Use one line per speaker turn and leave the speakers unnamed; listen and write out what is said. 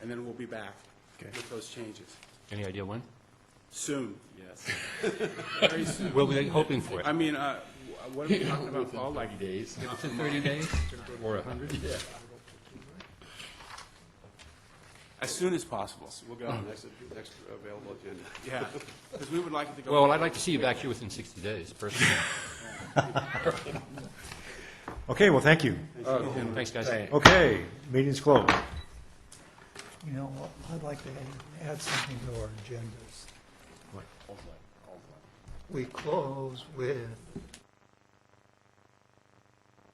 then we'll be back
Okay.
with those changes.
Any idea when?
Soon, yes. Very soon.
Well, we're hoping for it.
I mean, uh, wh- what are we talking about, Paul? Like,
days.
Is it 30 days or 100?
as soon as possible,
We'll get on the next, next available agenda.
yeah. Because we would like it to go.
Well, I'd like to see you back here within 60 days, personally.
Okay, well, thank you.
Thanks, guys.
Okay, meeting's closed.
You know, what? I'd like to add something to our agendas. We close with